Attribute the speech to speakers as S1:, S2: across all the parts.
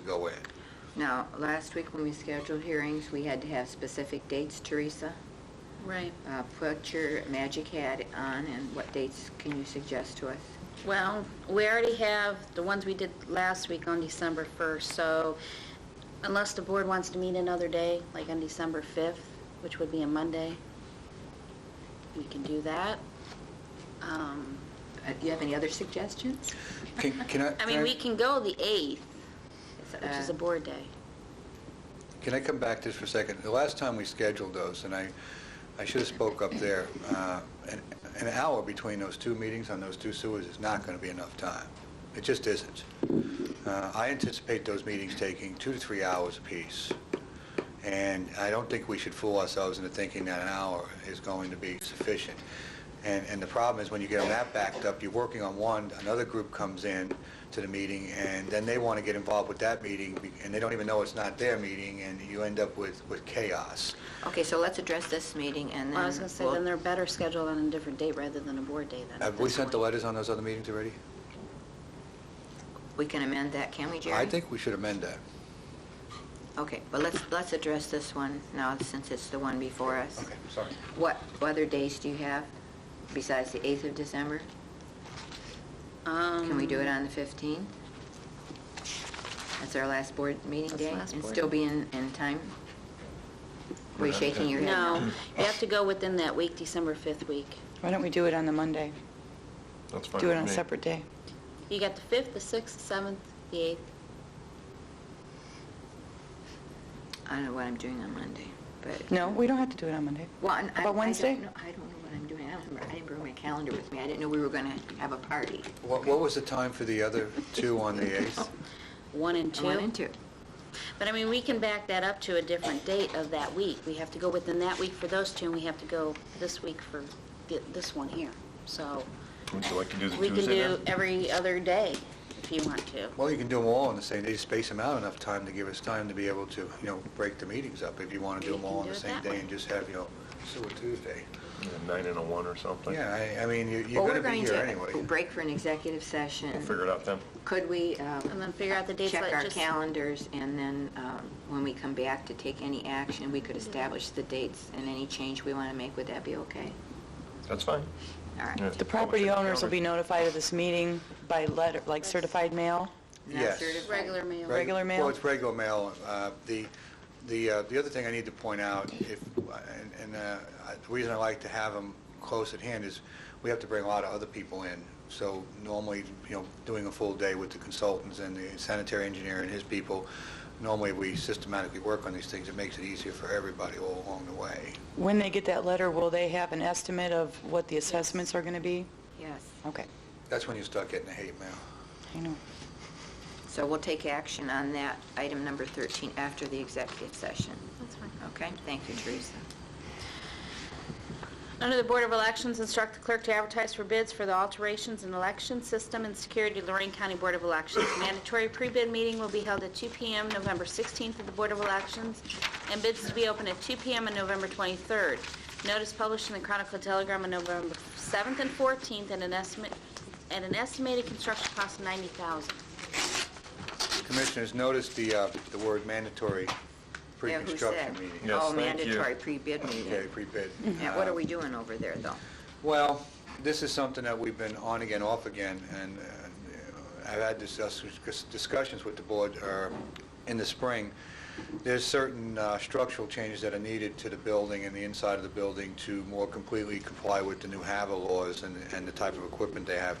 S1: go in.
S2: Now, last week when we scheduled hearings, we had to have specific dates, Teresa.
S3: Right.
S2: Uh, Put your magic hat on, and what dates can you suggest to us?
S3: Well, we already have the ones we did last week on December 1st, so unless the board wants to meet another day, like on December 5th, which would be a Monday, we can do that. Um,
S2: Uh, Do you have any other suggestions?
S4: Can, can I?
S3: I mean, we can go the 8th, which is
S2: Uh,
S3: a board day.
S4: Can I come back just for a second? The last time we scheduled those, and I, I should have spoke up there, uh, an an hour between those two meetings on those two sewers is not going to be enough time. It just isn't. Uh, I anticipate those meetings taking two to three hours apiece, and I don't think we should fool ourselves into thinking that an hour is going to be sufficient. And, and the problem is, when you get on that backed up, you're working on one, another group comes in to the meeting, and then they want to get involved with that meeting, be- and they don't even know it's not their meeting, and you end up with, with chaos.
S2: Uh, Okay, so let's address this meeting, and then...
S3: Well, I was going to say,
S2: we'll-
S3: then they're better scheduled on a different date rather than a board day then. at
S4: Have we
S3: this
S4: sent the
S3: point.
S4: letters on those other meetings already?
S2: We can amend that, can we, Jerry?
S4: I think we should amend that.
S2: Okay, but let's, let's address this one now, since it's the one before us.
S4: sorry.
S2: What other days do you have besides the 8th of December?
S3: Um,
S2: Can we do it on the 15th? That's our last board meeting
S3: That's
S2: day?
S3: last
S2: And
S3: board.
S2: still be in, in time? Were you shaking your head?
S3: No, you have to go within that week, December 5th week.
S5: Why don't we do it on the Monday?
S1: That's fine
S5: Do it on a separate day.
S3: You got the 5th, the 6th, the 7th, the 8th.
S2: I don't know what I'm doing on Monday, but...
S5: No, we don't have to do it on Monday.
S2: Well, and I-
S5: About Wednesday?
S2: I don't know, I don't know what I'm doing. I don't remember, I didn't bring my calendar with me. I didn't know we were going to have a party.
S4: What, what was the time for the other two on the 8th?
S3: 1 and 2.
S2: One and two.
S3: But I mean, we can back that up to a different date of that week. We have to go within that week for those two, and we have to go this week for thi- this one here. So
S1: So I can do the
S3: we can do
S1: Tuesday then?
S3: every other day if you want to.
S4: Well, you can do them all on the same, day. Just space them out enough time to give us time to be able to, you know, break the meetings up if you want to do
S3: You
S4: them all
S3: can
S4: on
S3: do
S4: the
S3: it
S4: same
S3: that
S4: day
S3: way.
S4: and just have, you know, Sewer Tuesday.
S1: Yeah, Nine and a one or something?
S4: Yeah, I, I mean, you-
S2: Well,
S4: you're
S2: we're
S4: going to be here anyway.
S2: Break for an executive session.
S1: We'll figure it out then.
S2: Could we... um,
S3: And then figure out the dates
S2: Check
S3: that
S2: our
S3: just-
S2: calendars, and then um, when we come back to take any action, we could establish the dates and any change we want to make. Would that be okay?
S1: That's fine.
S2: All right.
S1: Yeah.
S5: The property
S1: Publish it.
S5: owners will be notified of this meeting by letter, like certified mail.
S2: Now
S4: Yes.
S2: certified.
S3: Regular meal.
S4: Right.
S5: Regular mail?
S4: Well, it's regular mail. Uh, The, the, uh, the other thing I need to point out, if, and- and uh, I- the reason I like to have them close at hand is we have to bring a lot of other people in. So normally, you know, doing a full day with the consultants and the sanitary engineer and his people, normally we systematically work on these things. It makes it easier for everybody all along the way.
S5: When they get that letter, will they have an estimate of what the assessments are going to be?
S2: Yes.
S5: Okay,
S4: That's when you start getting the hate mail.
S5: I know.
S2: So we'll take action on that, item number 13, after the executive session.
S3: That's fine.
S2: Okay? Thank you, Teresa.
S3: Under the Board of Elections, instruct the clerk to advertise for bids for the alterations in election system and security of Lorraine County Board of Elections. Mandatory pre-bid meeting will be held at 2 PM November 16th at the Board of Elections, and bids to be open at 2 PM on November 23rd. Notice published in the Chronicle Telegram on November 7th and 14th at an estimate, at an estimated construction cost of 90000
S4: Commissioners, notice the, uh, the word mandatory
S2: Yeah, who
S4: pre-construction
S2: said?
S4: meeting.
S1: Yes,
S2: Oh,
S1: thank you.
S2: mandatory pre-bid
S4: Okay,
S2: meeting.
S4: pre-bid.
S2: Yeah, what
S4: Uh,
S2: are we doing over there, though?
S4: Well, this is something that we've been on again, off again, and uh, I've had discuss- discussions with the board uh, in the spring. There's certain uh, structural changes that are needed to the building and the inside of the building to more completely comply with the new HAVA laws and and the type of equipment they have.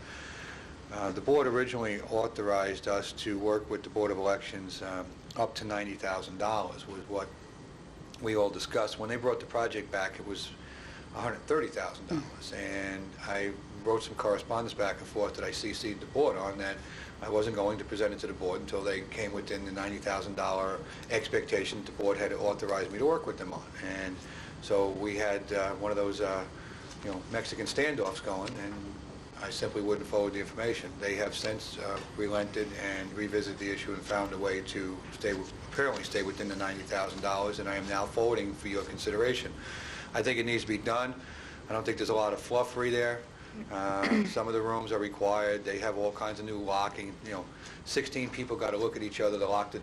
S4: Uh, The board originally authorized us to work with the Board of Elections um, up to $90,000 was what we all discussed. When they brought the project back, it was $130,000. And I wrote some correspondence back and forth that I CC'd the board on that I wasn't going to present it to the board until they came within the $90,000 expectation that the board had authorized me to work with them on. And so we had uh, one of those, uh, you know, Mexican standoffs going, and I simply wouldn't forward the information. They have since uh, relented and revisited the issue and found a way to stay, apparently stay within the $90,000, and I am now forwarding for your consideration. I think it needs to be done. I don't think there's a lot of fluffery there. Uh, Some of the rooms are required, they have all kinds of new locking, you know, 16 people got to look at each other to lock the